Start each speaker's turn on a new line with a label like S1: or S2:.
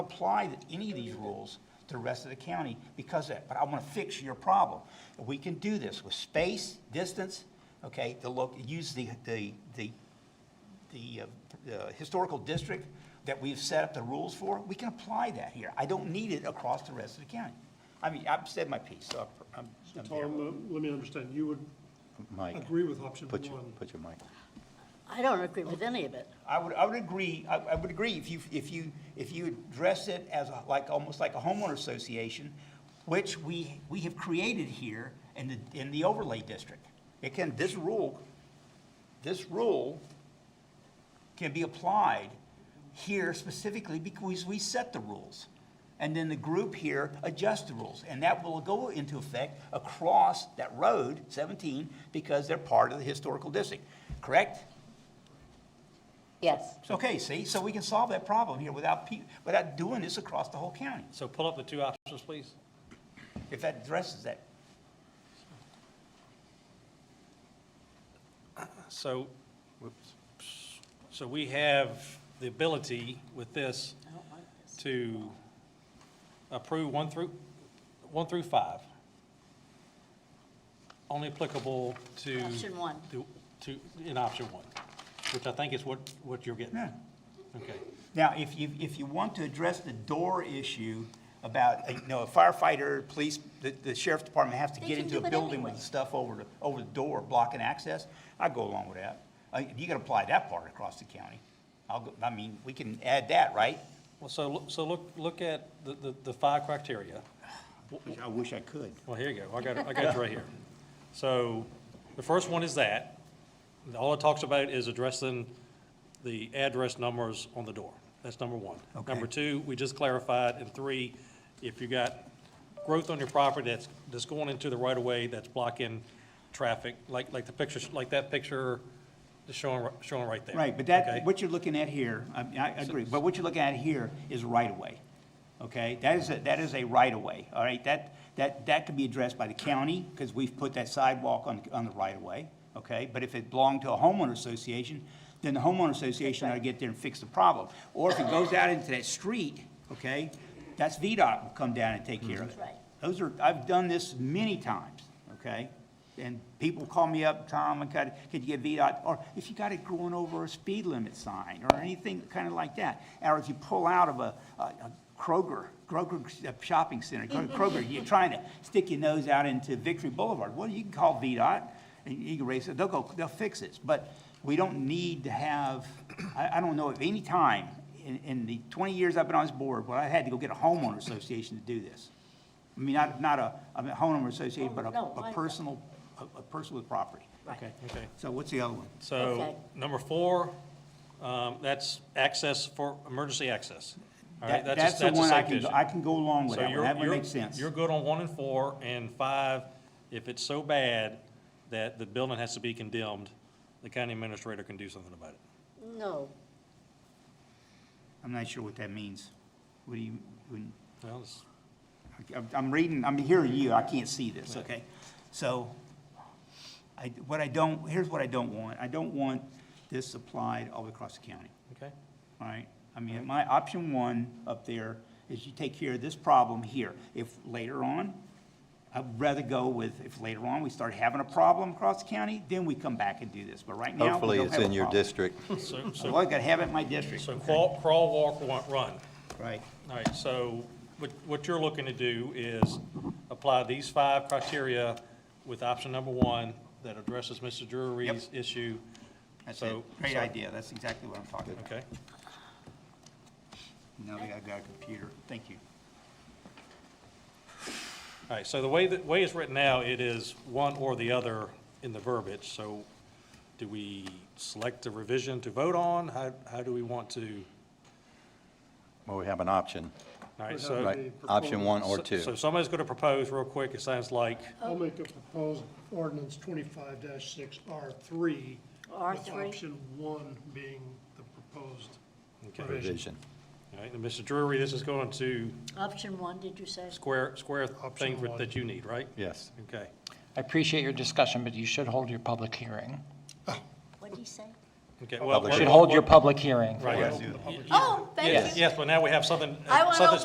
S1: apply that- any of these rules to the rest of the county because of that, but I want to fix your problem. We can do this with space, distance, okay, the loc, use the, the, the the uh, uh, historical district that we've set up the rules for, we can apply that here. I don't need it across the rest of the county. I mean, I've said my piece, so I'm, I'm there.
S2: Tom, uh, let me understand, you would
S1: Mike,
S2: agree with option
S1: put your,
S2: one?
S1: put your mic.
S3: I don't agree with any of it.
S1: I would, I would agree, I, I would agree if you, if you, if you address it as a, like, almost like a homeowner association, which we, we have created here in the, in the overlay district. It can, this rule, this rule can be applied here specifically because we set the rules. And then the group here adjusts the rules, and that will go into effect across that road, seventeen, because they're part of the historical district, correct?
S3: Yes.
S1: It's Okay, see, so we can solve that problem here without, pe- without doing this across the whole county,
S4: So pull up the two options, please.
S1: if that addresses that.
S4: So, so we have the ability with this
S3: I don't like this.
S4: to approve one through, one through five. Only applicable to.
S3: Option one.
S4: To, to, in option one, which I think is what, what you're getting at. Okay.
S1: Now, if you, if you want to address the door issue about, uh, you know, a firefighter, police, the, the sheriff's department has to
S3: They
S1: get
S3: can
S1: into
S3: do
S1: a
S3: it
S1: building with
S3: anyway.
S1: stuff over, the over the door blocking access, I'd go along with that. Uh, You can apply that part across the county. I'll go, I mean, we can add that, right?
S4: Well, so, look- so look, look at the, the, the five criteria.
S1: I wish I could.
S4: Well, here you go. I got, it- I got it right here. So the first one is that. And All it talks about is addressing the address numbers on the door. That's number one.
S1: Okay.
S4: Number two, we just clarified. And three, if you got growth on your property that's, that's going into the right of way, that's blocking traffic, like, like the picture, like that picture that's showing, ri- showing right there.
S1: Right, but
S4: Okay?
S1: that, what you're looking at here, I, I agree, but what you're looking at here is right-of-way, okay? That is, a- that is a right-of-way, all right? That, that, that could be addressed by the county, because we've put that sidewalk on, on the right-of-way, okay? But if it belonged to a homeowner association, then the homeowner association ought to get there and fix the problem. Or if it goes out into that street, okay, that's VDOT will come down and take care of it.
S3: Right.
S1: Those are, I've done this many times, okay? And people call me up, Tom, and could, could you get VDOT, or if you got it going over a speed limit sign, or anything kind of like that. Or if you pull out of a, a a Kroger, Kroger shopping center, Kroger, you're trying to stick your nose out into Victory Boulevard, well, you can call VDOT, and you can raise it, they'll go, they'll fix this. But we don't need to have, I, I don't know of any time in, in the twenty years I've been on this board where I had to go get a homeowner association to do this. I mean, not, not a, I mean, homeowner association, but a,
S3: Oh, No,
S1: a
S3: I-
S1: personal, a, a person with property.
S3: Right.
S4: Okay.
S1: So what's the other one?
S4: So
S3: Okay.
S4: number four, um, that's access for, emergency access. All right,
S1: That-
S4: that's a-
S1: That's the
S4: that's a
S1: one I
S4: safe
S1: can, go-
S4: vision.
S1: I can go along with
S4: So
S1: that
S4: you're
S1: one, that one
S4: you're-
S1: makes sense.
S4: You're good on one and four, and five, if it's so bad that the building has to be condemned, the county administrator can do something about it.
S3: No,
S1: I'm not sure what that means. What do you, when,
S4: Well, it's-
S1: I'm- I'm reading, I'm hearing you, I can't see this, okay? So, I, what I don't, here's what I don't want, I don't want this applied all across the county.
S4: okay,
S1: all right? I mean, my option one up there is you take care of this problem here. If later on, I'd rather go with, if later on we start having a problem across the county, then we come back and do this, but right now, we
S5: Hopefully,
S1: don't
S5: it's
S1: have a
S5: in your
S1: problem.
S5: district.
S4: so,
S1: So
S4: so,
S1: I gotta have it in my district.
S4: so crawl, crawl, walk, wa- run.
S1: Right.
S4: All right, so what, what you're looking to do is apply these five criteria with option number one that addresses Mr. Drury's issue.
S1: That's it.
S4: So-
S1: Great
S4: so-
S1: idea, that's exactly what I'm talking about.
S4: Okay,
S1: Now that I've got a computer, thank you.
S4: all right, so the way, the way it's written now, it is one or the other in the verbiage, so do we select the revision to vote on? How, how do we want to?
S5: Well, we have an option,
S4: All right, so,
S5: right? Option one or
S4: so
S5: two.
S4: somebody's going to propose real quick, it sounds like,
S2: I'll make a proposed ordinance twenty-five six R three. With
S3: R3.
S2: option one being the proposed
S4: Okay.
S2: provision.
S5: Vision.
S4: all right, and Mr. Drury, this is going to
S3: option one, did you say?
S4: square, square things
S2: Option one.
S4: that you need, right?
S5: Yes.
S4: Okay.
S6: I appreciate your discussion, but you should hold your public hearing.
S3: What did he say?
S4: Okay, well.
S5: Public
S4: we're-
S6: Should hold your public hearing.
S4: Right.
S5: Yes.
S4: Y-
S3: Oh, thank you.
S4: Yes, yes, but now we have something.
S3: I went
S4: something